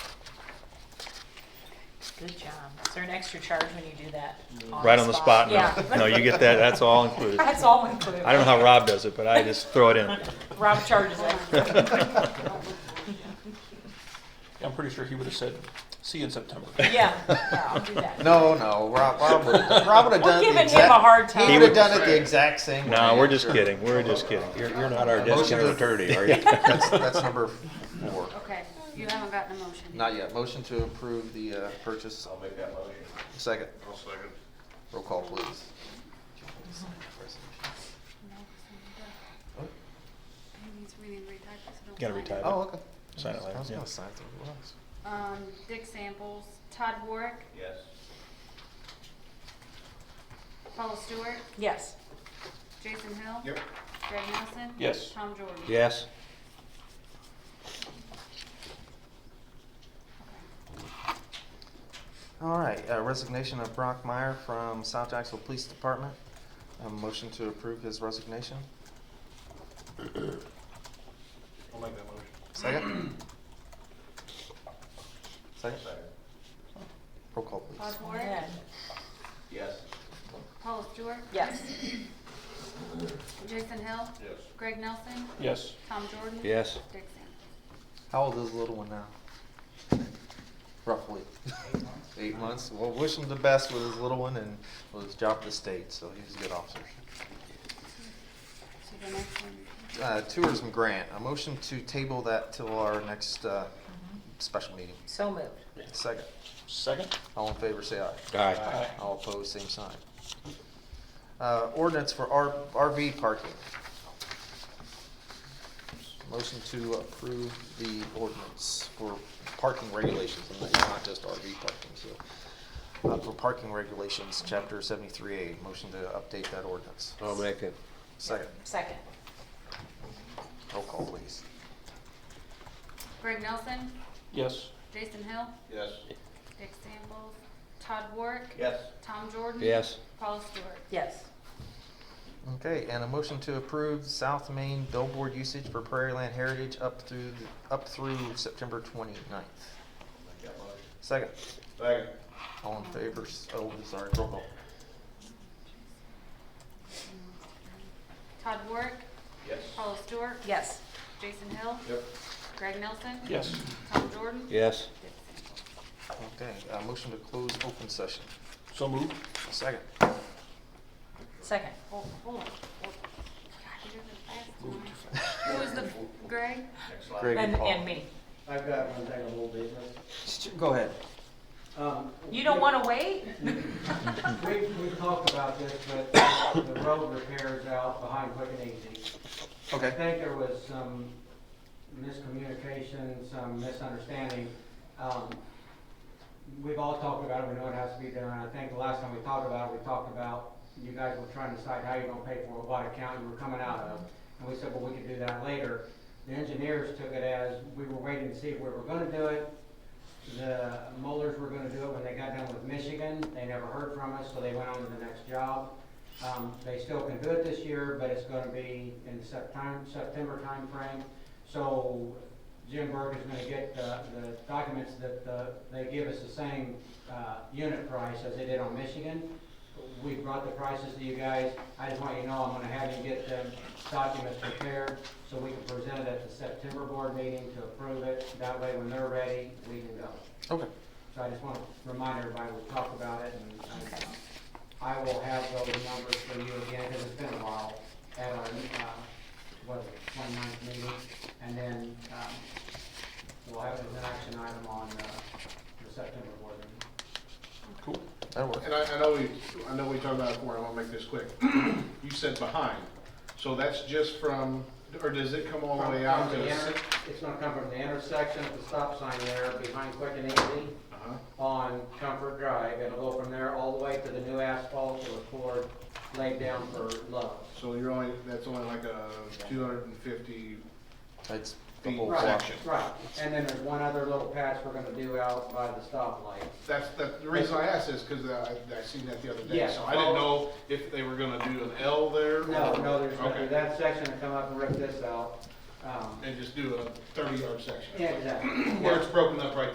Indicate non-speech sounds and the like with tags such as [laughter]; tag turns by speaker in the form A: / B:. A: Good job. Is there an extra charge when you do that?
B: Mm-hmm. Right on the spot, no,
A: Yeah.
B: [laughs] no, you get that, that's all included.
A: [laughs]
B: I
A: That's all included.
B: don't know how Rob does it, but I just throw it in. [laughs]
A: Rob charges it.
C: I'm pretty sure he would have said, see you in September.
A: [laughs] Yeah, yeah, I'll do that.
D: No, no, Rob, Rob would have
A: We're
D: done
A: giving
D: the
A: him
D: exact.
A: a hard time.
D: He
B: He
D: would have
B: would-
D: done it the exact same.
B: No,
D: way,
B: we're just
D: sure.
B: kidding, we're just kidding.
E: You're, you're not our
D: Motion
E: designated
D: to-
E: attorney, are you?
D: [laughs] That's, that's number four.
F: Okay, you haven't gotten a motion.
D: Not yet. Motion to approve the uh, purchase. I'll make that motion. Second. I'll second. Roll call, please.
F: He's reading retyped, so don't
B: Gotta
F: sign
B: retype.
F: it.
D: Oh, okay.
B: Sign it later,
D: I was
B: yeah.
D: gonna sign something else.
F: Um, Dick Samples, Todd Warwick,
G: Yes.
F: Paula Stewart,
A: Yes.
F: Jason Hill.
G: Yep.
F: Greg Nelson.
C: Yes.
F: Tom Jordan.
E: Yes.
D: All right, uh, resignation of Brock Meyer from South Jacksonville Police Department. A motion to approve his resignation.
G: I'll make that motion.
D: [clears throat] Second. Second.
G: Second.
D: Roll call,
F: Todd
D: please.
F: Warwick,
A: Yeah.
G: Yes.
F: Paula Stewart,
A: Yes.
F: Jason Hill,
G: Yes.
F: Greg Nelson,
C: Yes.
F: Tom Jordan.
E: Yes.
F: Dick Samples.
D: How old is the little one now? Roughly. Eight months. Well, wish him the best with his little one and with his job at the state, so he's a good officer.
F: So the next one,
D: Uh, tourism grant, a motion to table that till our next, uh, special meeting.
A: So moved.
D: Second.
C: Second?
D: All in favor, say aye.
E: All right.
C: Aye.
D: All opposed, same sign. Uh, ordinance for R- RV parking. Motion to approve the ordinance for parking regulations, and it's not just RV parking, so. Uh, for parking regulations, chapter seventy-three A, motion to update that ordinance.
E: I'll make it.
D: Second,
A: Second.
D: roll call please.
F: Greg Nelson,
C: Yes.
F: Jason Hill,
G: Yes.
F: Dick Samples, Todd Warwick.
G: Yes.
F: Tom Jordan.
E: Yes.
F: Paula Stewart.
A: Yes.
D: Okay, and a motion to approve South Main billboard usage for Prairie Land Heritage up through, up through September twenty-ninth.
G: Make that motion.
D: Second.
G: Second.
D: All in favor, s- oh, sorry, roll call.
F: Todd Warwick,
G: Yes.
F: Paula Stewart.
A: Yes.
F: Jason Hill,
G: Yep.
F: Greg Nelson.
C: Yes.
F: Tom Jordan.
E: Yes.
F: Dick Samples.
D: Okay, uh, motion to close open session.
C: So moved?
D: Second.
A: Second.
F: Hold, Oh, hold on. hold on. God, you're the fastest one. Who was the, Greg?
G: Next slide.
D: Greg
A: And,
D: and Paul.
A: and me.
H: I've got one thing of old business.
D: Go ahead.
H: Um,
A: You don't want to wait?
H: We, we talked about this, but the road repairs out behind Quick and Easy. I
D: Okay.
H: think there was some miscommunication, some misunderstanding. Um, We've all talked about it, we know it has to be done. I think the last time we talked about it, we talked about you guys were trying to decide how you're gonna pay for it, what account you were coming out of. And we said, well, we could do that later. The engineers took it as, we were waiting to see if we were gonna do it. The molars were gonna do it when they got done with Michigan. They never heard from us, so they went on to the next job. Um, they still can do it this year, but it's gonna be in the September, September timeframe. So Jim Berg is gonna get the, the documents that, uh, they give us the same, uh, unit price as they did on Michigan. We brought the prices to you guys. I just want you to know, I'm gonna have you get them documents prepared so we can present it at the September board meeting to approve it. That way, when they're ready, we can go.
D: Okay.
H: So I just want to remind everybody, we'll talk about it, and and,
A: Okay.
H: uh, I will have those numbers for you again, because it's been a while, at our, uh, what, twenty-ninth meeting, and then, um, we'll have an action item on, uh, the September board meeting.
C: Cool.
D: That'll work.
G: And I, I know we, I know we talked about it before, I want to make this quick. [clears throat] You said behind, so that's just from, or does it come all the way out to?
H: From the
G: the
H: inter-
G: si-
H: It's gonna come from the intersection at the stop sign there, behind Quick and Easy,
G: Uh-huh.
H: on Comfort Drive, it'll go from there all the way to the new asphalt to the cord laid down for Love's.
G: So you're only, that's only like a two hundred and fifty,
D: That's the
G: Feet.
D: whole
H: Right,
D: block.
G: section.
H: Right, and then there's one other little patch we're gonna do out by the stoplight.
G: that's, that, the reason I asked is because I, I seen that the other day,
H: Yeah.
G: so I didn't know if they were gonna do an L there.
H: No,
G: or-
H: no, there's gonna be
G: Oh, Okay.
H: that section to come up and rip this out. Um,
G: And just do a thirty yard section.
H: Yeah, exactly.
G: Where it's broken up right